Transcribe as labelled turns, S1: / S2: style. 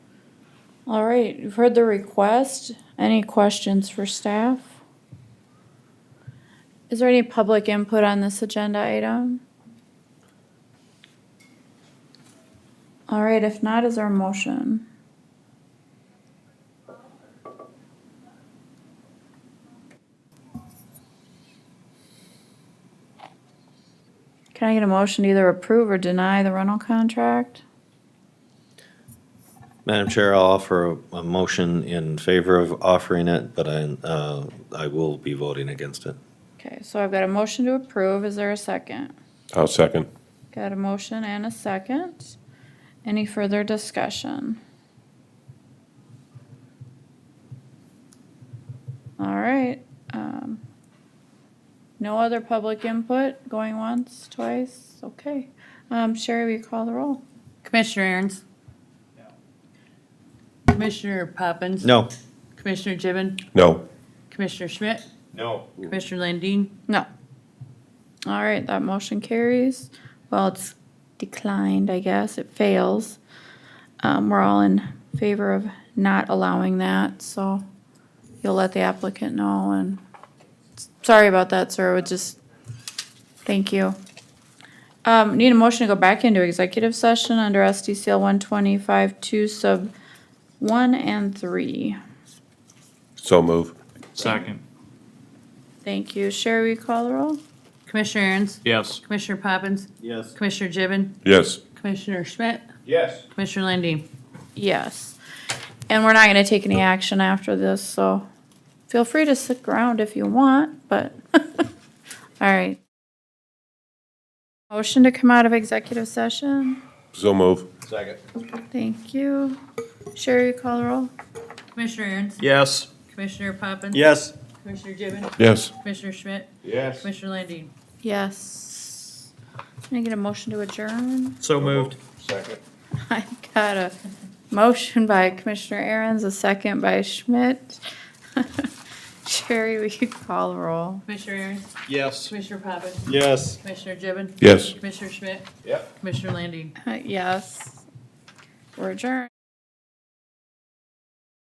S1: All right, you've heard the request. Any questions for staff? Is there any public input on this agenda item? All right, if not, is our motion? Can I get a motion to either approve or deny the rental contract?
S2: Madam Chair, I'll offer a, a motion in favor of offering it, but I, uh, I will be voting against it.
S1: Okay, so I've got a motion to approve. Is there a second?
S3: I'll second.
S1: Got a motion and a second. Any further discussion? All right. um, No other public input going once, twice? Okay. Um, Sherry, will you call the roll?
S4: Commissioner Aaron's? Commissioner Poppins?
S2: No,
S4: Commissioner Gibbon?
S3: No,
S4: Commissioner Schmidt?
S5: No.
S4: Commissioner Landine?
S1: No. All right, that motion carries. Well, it's declined, I guess. It fails. Um, we're all in favor of not allowing that, so you'll let the applicant know and sorry about that, sir. It would just, thank you. Um, need a motion to go back into executive session under SDCL one twenty-five two sub one and three.
S3: so move.
S5: Second.
S1: Thank you. Sherry, will you call the roll?
S4: Commissioner Aaron's?
S5: Yes.
S4: Commissioner Poppins?
S2: Yes.
S4: Commissioner Gibbon?
S3: Yes,
S4: Commissioner Schmidt?
S5: Yes.
S4: Commissioner Landine?
S1: Yes. And we're not gonna take any action after this, so feel free to stick around if you want, but, all right. Motion to come out of executive session.
S3: so move.
S5: Second.
S1: Thank you. Sherry, you call the roll?
S4: Commissioner Aaron's?
S5: Yes.
S4: Commissioner Poppins?
S2: Yes.
S4: Commissioner Gibbon?
S3: Yes,
S4: Commissioner Schmidt?
S5: Yes.
S4: Commissioner Landine?
S1: Yes. Can I get a motion to adjourn?
S5: So moved. Second.
S1: I got a motion by Commissioner Aaron's, a second by Schmidt. Sherry, will you call the roll?
S4: Commissioner Aaron's?
S5: Yes.
S4: Commissioner Poppins?
S5: Yes.
S4: Commissioner Gibbon?
S3: yes.
S4: Commissioner Schmidt?
S5: Yep.
S4: Commissioner Landine?
S1: Yes. We're adjourned.